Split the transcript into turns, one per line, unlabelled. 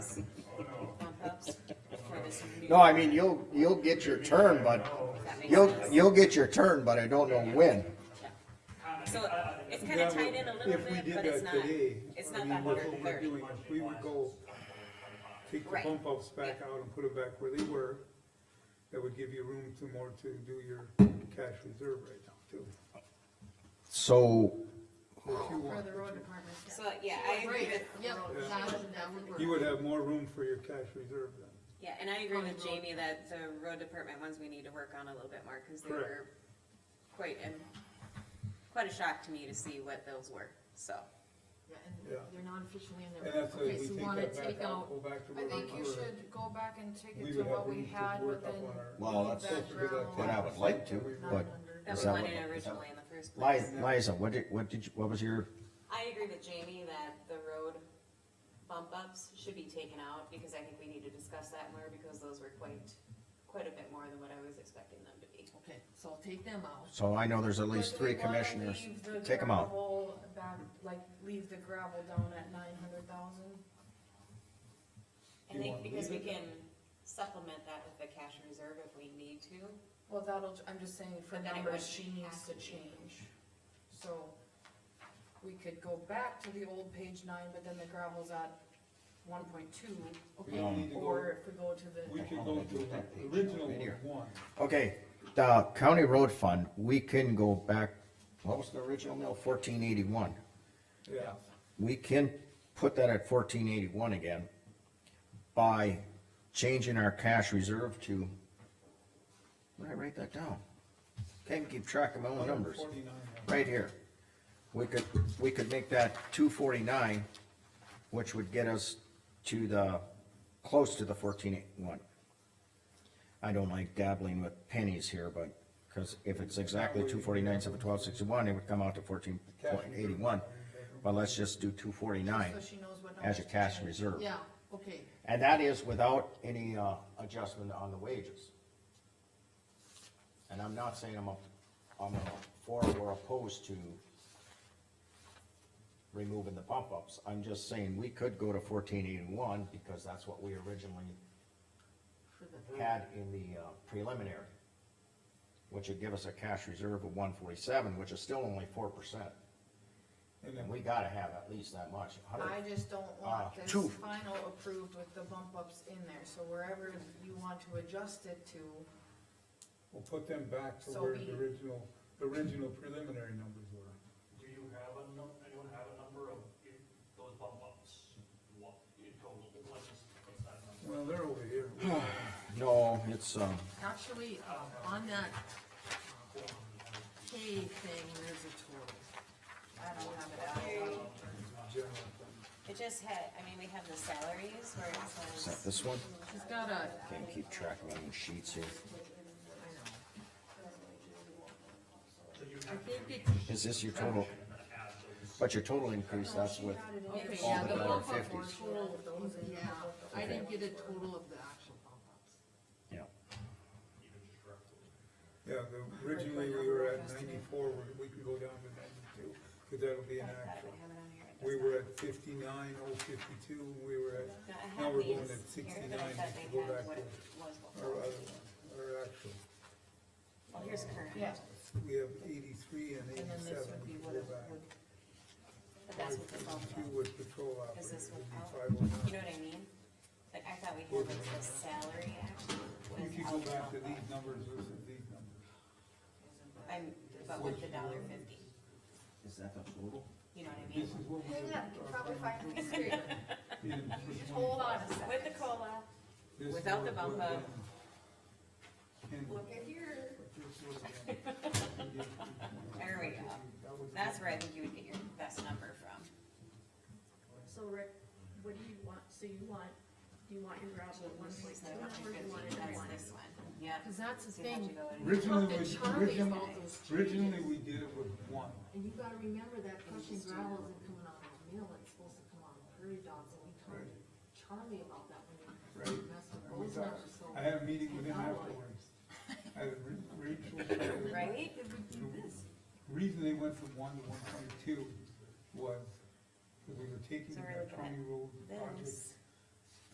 No, I mean, you'll, you'll get your turn, but, you'll, you'll get your turn, but I don't know when.
So it's kind of tied in a little
If we
bit,
did
but it's
that
not,
today,
it's
I
not
mean,
that
what
hundred and
we're
thirty.
doing, We would go take the
Right.
pump outs back out and put them back where they were. That would give you room to more to do your cash reserve right now too.
So,
If you
For
want,
the road department. yeah.
So, yeah, I agree with,
Yep, that- that would work.
you would have more room for your cash reserve then.
yeah, and I agree with Jamie that the road department ones we need to work on a little bit more, cause they
Correct.
were quite, and quite a shock to me to see what those were, so.
Yeah,
Yeah.
And they're not officially in
And
there.
that's why
Okay,
we
so
take
we wanna
that
take
back out,
out,
go back to
I
where we were.
think you should go back and take
We
it to
would have
what
room
we
to
had,
work
but
up
then.
on our-
Well, Oh, that's
leave
supposed to be
that
like
what
gravel.
I would like to,
That was
but. is
wanted
that what- is that-
originally in the first
Liza,
place.
Liza, what did, what did you, what was your,
I agree with Jamie that the road bump ups should be taken out, because I think we need to discuss that more, because those were quite, quite a bit more than what I was expecting them to be.
okay, so I'll take them out.
so I know there's at least
But
three
we wanna
commissioners,
leave the
take them out.
gravel back- Like, leave the gravel down at nine hundred thousand?
I think because we can supplement that with the cash reserve if we need to.
Well, that'll, I'm just saying for
But then it
numbers,
would
she needs
have
to
to be-
change. So we could go back to the old page nine, but then the gravel's at one point two.
We need to go-
Or if we go to the.
We could go to the original one.
Okay, the county road fund, we can go back, what was the original mill, fourteen eighty-one?
Yeah.
We can put that at fourteen eighty-one again by changing our cash reserve to, where did I write that down? Can't keep track of my own numbers.
149, yeah.
right here. We could, we could make that two forty-nine, which would get us to the, close to the fourteen eight one. I don't like dabbling with pennies here, but, cause if it's exactly two forty-nine, seven twelve sixty-one, it would come out to fourteen point eighty-one. But let's just do two forty-nine
So she knows what
as a
numbers to
cash
change.
reserve.
Yeah, okay,
And that is without any, uh, adjustment on the wages. And I'm not saying I'm a, I'm a for or opposed to removing the bump ups, I'm just saying we could go to fourteen eighty-one, because that's what we originally
for the,
had in the uh, preliminary, which would give us a cash reserve of one forty-seven, which is still only four percent,
And
and
then
we gotta have at least that much, a hundred-
I just don't
Uh,
Ah,
want this
two.
final approved with the bump ups in there, so wherever you want to adjust it to.
we'll put them back to
So
where
we-
the original, the original preliminary numbers were.
Do you have a num, anyone have a number of i- those bump ups? What, in total, what's, what's that number?
Well, they're over here.
No, it's, um,
actually, uh, on that pay thing, there's a total.
I don't have it out.
General fund.
It just had, I mean, we have the salaries where it
is that
says,
this one?
She's got a,
Can't keep track of my own sheets
I
here.
know,
So you
I
have
think it's,
Is this your total?
to add those.
But your total increase, that's with,
okay,
All
yeah,
the
the
dollar
bump up was
fifties.
total, yeah, I didn't get a total of the actual bump ups.
yeah,
Yeah, the, originally we were at ninety-four, we- we can go down to ninety-two, cause that'll be
I
an
thought I
actual.
would have it on here. It
We
does
were
not.
at fifty-nine, oh fifty-two, we were
No, I
at, now
have
we're
these
going at
here,
sixty-nine,
but I thought
if
they
you go
had
back
what
to
it was
our
before.
other one, our actual.
Well, here's current,
Yeah.
We have eighty-three and
And then this
eighty-seven,
would
if
be
you
what
go
it
back.
would-
but that's what the bump
Two
up,
with patrol
is
operator,
this
would be
without,
five oh
you know
nine.
what I mean? Like, I thought we had like the salary
You
actually
could
was
go
out the bump
back to
up.
these numbers versus these numbers.
I'm, but with the dollar fifty,
Is that the total?
you know what I mean?
This is what we.
Hang on, you can probably find it screen.
Just
Hold on a second.
With the COLA, Without the bump up.
Look
at here.
there we go. That's where I think you would get your best number from.
So Rick, what do you want, so you want, do you want your gravel at one point
So
two,
that's
or do you want it at one?
this one, yep.
Cause that's the
So you have to
thing,
go in.
we
Originally,
talked
we-
to Charlie
originally-
about those
Originally,
changes.
we did it with one.
And you gotta remember that crushing gravel isn't coming out of a mill, it's supposed to come out of prairie dogs, and we told Charlie about that when
Right.
we messed
And we
with those
thought-
numbers, so.
I had a meeting with him afterwards. I had Ra- Rachel.
Right?
The Reason they went from one to one point two was because we were taking
So we're
that
looking at
county road project
this.